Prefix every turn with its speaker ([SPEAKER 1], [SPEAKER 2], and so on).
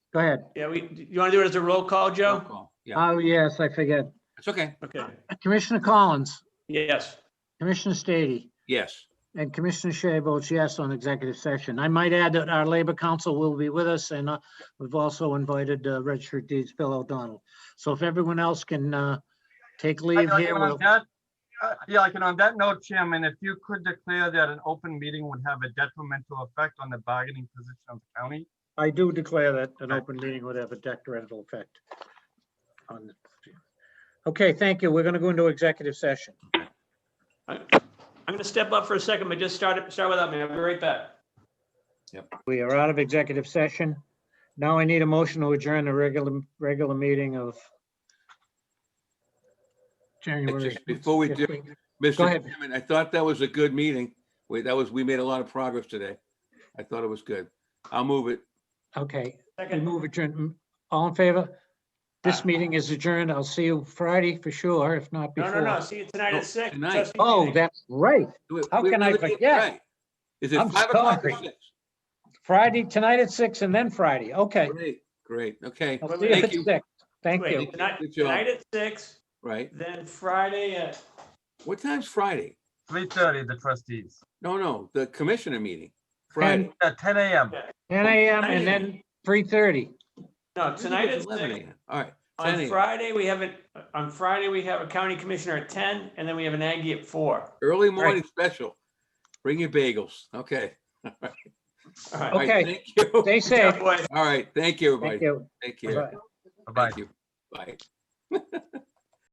[SPEAKER 1] Go ahead.
[SPEAKER 2] Yeah, we, do you want to do it as a roll call,
[SPEAKER 3] Roll
[SPEAKER 2] Joe?
[SPEAKER 3] call. Yeah,
[SPEAKER 1] Oh, yes, I forget.
[SPEAKER 3] it's okay.
[SPEAKER 2] Okay,
[SPEAKER 1] Commissioner Collins,
[SPEAKER 2] yes.
[SPEAKER 1] Commissioner Stady,
[SPEAKER 3] Yes.
[SPEAKER 1] and Commissioner Shea votes yes on executive session. I might add that our Labor Council will be with us, and uh, we've also invited uh, registered deeds Bill O'Donnell. So if everyone else can uh, take
[SPEAKER 4] I-
[SPEAKER 1] leave
[SPEAKER 4] I-
[SPEAKER 1] here,
[SPEAKER 4] and
[SPEAKER 1] we'll
[SPEAKER 4] on that- uh, Yeah, like, and on that note, Chairman, if you could declare that an open meeting would have a detrimental effect on the bargaining position of the county.
[SPEAKER 1] I do declare that an open meeting would have a detrimental effect. on the Okay, thank you. We're going to go into executive session.
[SPEAKER 2] I- I'm going to step up for a second, but just start, it- start without me. I'll be right back.
[SPEAKER 1] We are out of executive session. Now I need a motion to adjourn the regular, regular meeting of January.
[SPEAKER 3] Just before we do-
[SPEAKER 1] fifteenth. Go
[SPEAKER 3] Mr.
[SPEAKER 1] ahead.
[SPEAKER 3] Chairman, I thought that was a good meeting. Wait, that was, we made a lot of progress today. I thought it was good. I'll move it.
[SPEAKER 1] Okay, we
[SPEAKER 2] Second,
[SPEAKER 1] move adjourn. mm, All in favor? This
[SPEAKER 2] Aye.
[SPEAKER 1] meeting is adjourned. I'll see you Friday for sure, if not
[SPEAKER 2] no, no, no,
[SPEAKER 1] before.
[SPEAKER 2] see you tonight at
[SPEAKER 3] Oh,
[SPEAKER 2] six.
[SPEAKER 3] tonight.
[SPEAKER 2] Trustee
[SPEAKER 1] Oh,
[SPEAKER 2] meeting.
[SPEAKER 1] that's right.
[SPEAKER 3] Do it.
[SPEAKER 1] How
[SPEAKER 3] We
[SPEAKER 1] can I
[SPEAKER 3] really did
[SPEAKER 1] forget?
[SPEAKER 3] right. Is it
[SPEAKER 1] I'm
[SPEAKER 3] five o'clock or
[SPEAKER 1] sorry.
[SPEAKER 3] six?
[SPEAKER 1] Friday, tonight at six and then Friday. Okay.
[SPEAKER 3] Great, great, okay,
[SPEAKER 1] I'll see you
[SPEAKER 3] Thank
[SPEAKER 1] at
[SPEAKER 3] you.
[SPEAKER 1] six. Thank
[SPEAKER 2] Wait,
[SPEAKER 1] you.
[SPEAKER 3] Thank you.
[SPEAKER 2] Tonight
[SPEAKER 3] Good job.
[SPEAKER 2] tonight at six,
[SPEAKER 3] right.
[SPEAKER 2] then Friday at,
[SPEAKER 3] What time's Friday?
[SPEAKER 4] Three thirty, the trustees,
[SPEAKER 3] No, no, the commissioner meeting, Friday.
[SPEAKER 4] at ten AM.
[SPEAKER 1] 10 a.m. and then 3:30.
[SPEAKER 2] no, tonight at
[SPEAKER 3] Eleven
[SPEAKER 2] six.
[SPEAKER 3] AM, all right. 10
[SPEAKER 2] On
[SPEAKER 3] a.m.
[SPEAKER 2] Friday, we have, a- on Friday, we have a county commissioner at ten, and then we have an Aggie at four.
[SPEAKER 3] Early morning special. Bring your bagels, okay.
[SPEAKER 2] All right.
[SPEAKER 3] All right,
[SPEAKER 1] Okay.
[SPEAKER 3] Thank you.
[SPEAKER 1] Stay safe.
[SPEAKER 2] Boys.
[SPEAKER 3] All right, thank you,
[SPEAKER 1] Thank
[SPEAKER 3] everybody.
[SPEAKER 1] you.
[SPEAKER 3] Take
[SPEAKER 1] Bye-bye.
[SPEAKER 3] care.
[SPEAKER 4] Bye-bye.
[SPEAKER 3] Thank you. Bye.